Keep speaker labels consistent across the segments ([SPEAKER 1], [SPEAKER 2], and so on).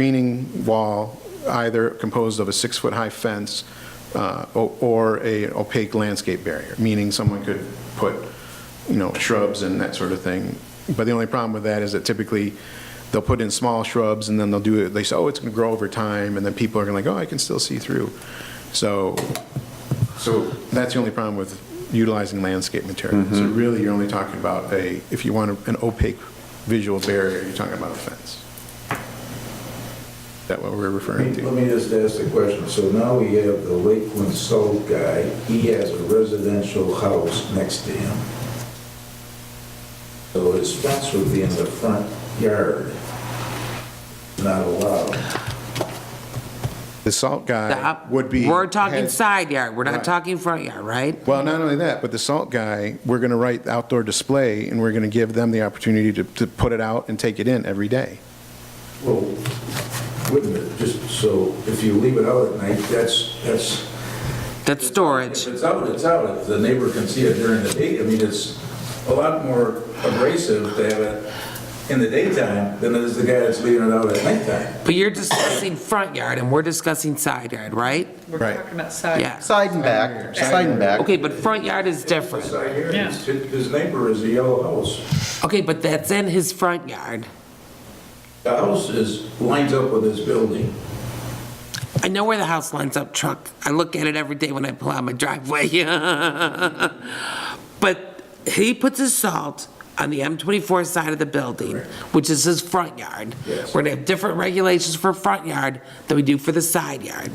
[SPEAKER 1] screening wall either composed of a six-foot-high fence uh, o- or a opaque landscape barrier, meaning someone could put, you know, shrubs and that sort of thing. But the only problem with that is that typically, they'll put in small shrubs, and then they'll do, it. they say, oh, it's going to grow over time, and then people are going to like, oh, I can still see through. So, so that's the only problem with utilizing landscape material. So really, you're only talking about a, if you want an opaque visual barrier, you're talking about a fence. Is that what we're referring
[SPEAKER 2] Let me-
[SPEAKER 1] to?
[SPEAKER 2] let me just ask the question. So now we have the Lakeland Salt guy, he has a residential house next to him. So his fence would be in the front yard, not allowed.
[SPEAKER 1] The salt
[SPEAKER 3] The
[SPEAKER 1] guy
[SPEAKER 3] up-
[SPEAKER 1] would be.
[SPEAKER 3] We're talking
[SPEAKER 1] had-
[SPEAKER 3] side yard, we're
[SPEAKER 1] Right.
[SPEAKER 3] not talking front yard, right?
[SPEAKER 1] Well, not only that, but the salt guy, we're going to write outdoor display, and we're going to give them the opportunity to, to put it out and take it in every day.
[SPEAKER 2] Well, wouldn't it, just so, if you leave it out at night, that's, that's.
[SPEAKER 3] That's storage.
[SPEAKER 2] If it's out, it's out. If the neighbor can see it during the day, I mean, it's a lot more abrasive to have it in the daytime than it is the guy that's leaving it out at nighttime.
[SPEAKER 3] But you're discussing front yard and we're discussing side yard, right?
[SPEAKER 4] We're
[SPEAKER 1] Right.
[SPEAKER 4] talking about side.
[SPEAKER 3] Yeah.
[SPEAKER 5] Side and back, side and back.
[SPEAKER 3] Okay, but front yard is different.
[SPEAKER 2] Side yard,
[SPEAKER 4] Yeah.
[SPEAKER 2] his- His neighbor is a yellow house.
[SPEAKER 3] Okay, but that's in his front yard.
[SPEAKER 2] The house is, lines up with his building.
[SPEAKER 3] I know where the house lines up, truck. I look at it every day when I pull out my driveway. But he puts his salt on the M24 side of the building, which is his front yard.
[SPEAKER 2] Yes.
[SPEAKER 3] We're gonna have different regulations for front yard than we do for the side yard.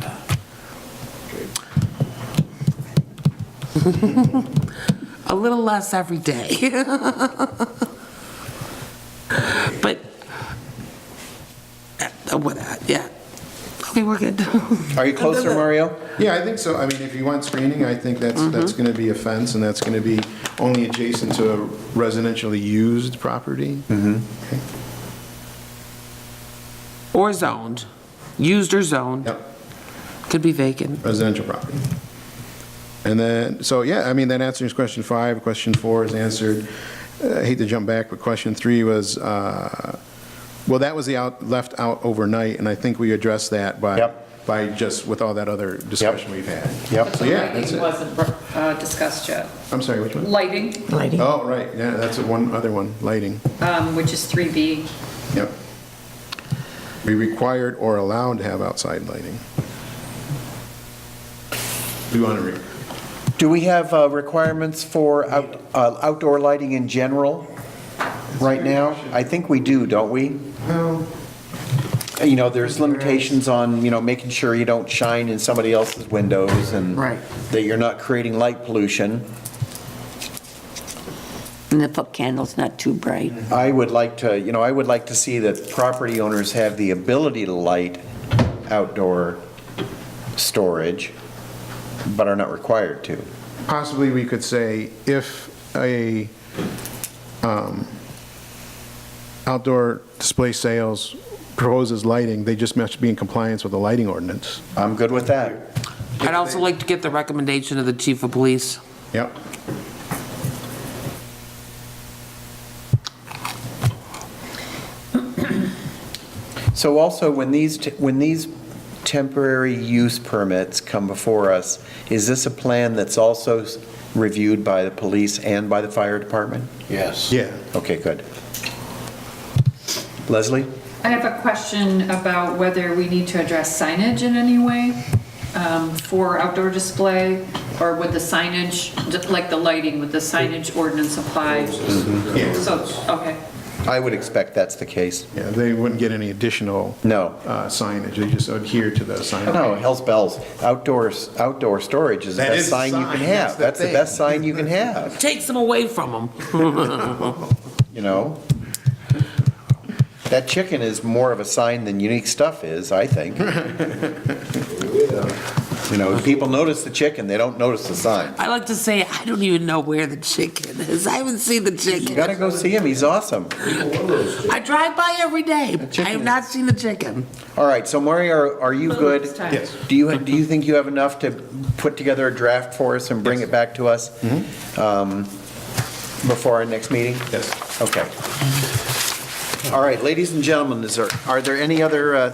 [SPEAKER 3] A little less every day. But, uh, what, uh, yeah. Okay, we're good.
[SPEAKER 5] Are you closer, Mario?
[SPEAKER 1] Yeah, I think so. I mean, if you want screening, I think that's,
[SPEAKER 3] Mm-hmm.
[SPEAKER 1] that's going to be a fence, and that's going to be only adjacent to a residentially used property.
[SPEAKER 3] Or zoned, used or zoned,
[SPEAKER 1] Yep,
[SPEAKER 3] could be vacant.
[SPEAKER 1] residential property. And then, so, yeah, I mean, that answers question five. Question four is answered. Uh, I hate to jump back, but question three was, uh, well, that was the out, left out overnight, and I think we addressed that by,
[SPEAKER 5] Yep.
[SPEAKER 1] by just with all that other discussion we've had.
[SPEAKER 4] But
[SPEAKER 5] Yep.
[SPEAKER 1] So,
[SPEAKER 4] the
[SPEAKER 1] yeah, that's
[SPEAKER 4] lighting
[SPEAKER 1] it.
[SPEAKER 4] wasn't uh, discussed yet.
[SPEAKER 1] I'm sorry, which one?
[SPEAKER 4] Lighting,
[SPEAKER 1] Oh, right, yeah, that's the one, other one, lighting.
[SPEAKER 4] um, which is 3B,
[SPEAKER 1] Yep. Be required or allowed to have outside lighting. We want to read.
[SPEAKER 5] Do we have uh, requirements for out- uh, outdoor lighting in general right now? I think we do, don't we?
[SPEAKER 1] Well,
[SPEAKER 5] You know, there's limitations on, you know, making sure you don't shine in somebody else's windows and
[SPEAKER 3] Right.
[SPEAKER 5] that you're not creating light pollution.
[SPEAKER 6] And if a candle's not too bright.
[SPEAKER 5] I would like to, you know, I would like to see that property owners have the ability to light outdoor storage, but are not required to.
[SPEAKER 1] possibly we could say if a um, outdoor display sales proposes lighting, they just must be in compliance with the lighting ordinance.
[SPEAKER 5] I'm good with that.
[SPEAKER 3] I'd also like to get the recommendation of the chief of police.
[SPEAKER 1] Yep.
[SPEAKER 5] So also, when these, te- when these temporary use permits come before us, is this a plan that's also s- reviewed by the police and by the fire department?
[SPEAKER 7] Yes.
[SPEAKER 1] Yeah.
[SPEAKER 5] Okay, good. Leslie?
[SPEAKER 4] I have a question about whether we need to address signage in any way um, for outdoor display, or would the signage, like the lighting, would the signage ordinance apply?
[SPEAKER 1] Mm-hmm.
[SPEAKER 4] So, okay,
[SPEAKER 5] I would expect that's the case.
[SPEAKER 1] Yeah, they wouldn't get any additional
[SPEAKER 5] No.
[SPEAKER 1] uh, signage. They just adhere to the signage.
[SPEAKER 5] No, hell's bells. Outdoors, outdoor storage is the
[SPEAKER 1] That is
[SPEAKER 5] best
[SPEAKER 1] a
[SPEAKER 5] sign you
[SPEAKER 1] sign,
[SPEAKER 5] can
[SPEAKER 1] that's
[SPEAKER 5] have.
[SPEAKER 1] the
[SPEAKER 5] That's the
[SPEAKER 1] thing.
[SPEAKER 5] best sign you can have,
[SPEAKER 3] Takes them away from them.
[SPEAKER 5] you know? That chicken is more of a sign than unique stuff is, I think. You know, if people notice the chicken, they don't notice the sign.
[SPEAKER 3] I like to say, I don't even know where the chicken is. I haven't seen the
[SPEAKER 5] You
[SPEAKER 3] chicken.
[SPEAKER 5] gotta go see him, he's awesome.
[SPEAKER 3] I drive by every day. I have
[SPEAKER 5] chicken
[SPEAKER 3] not seen the chicken.
[SPEAKER 5] All right, so Mario, are- are you
[SPEAKER 4] But
[SPEAKER 5] good?
[SPEAKER 4] it's time. Yes.
[SPEAKER 5] Do you, do you think you have enough to put together a draft for us and bring it back to us? um, Before our next meeting?
[SPEAKER 1] Yes.
[SPEAKER 5] Okay. All right, ladies and gentlemen, is there, are there any other uh,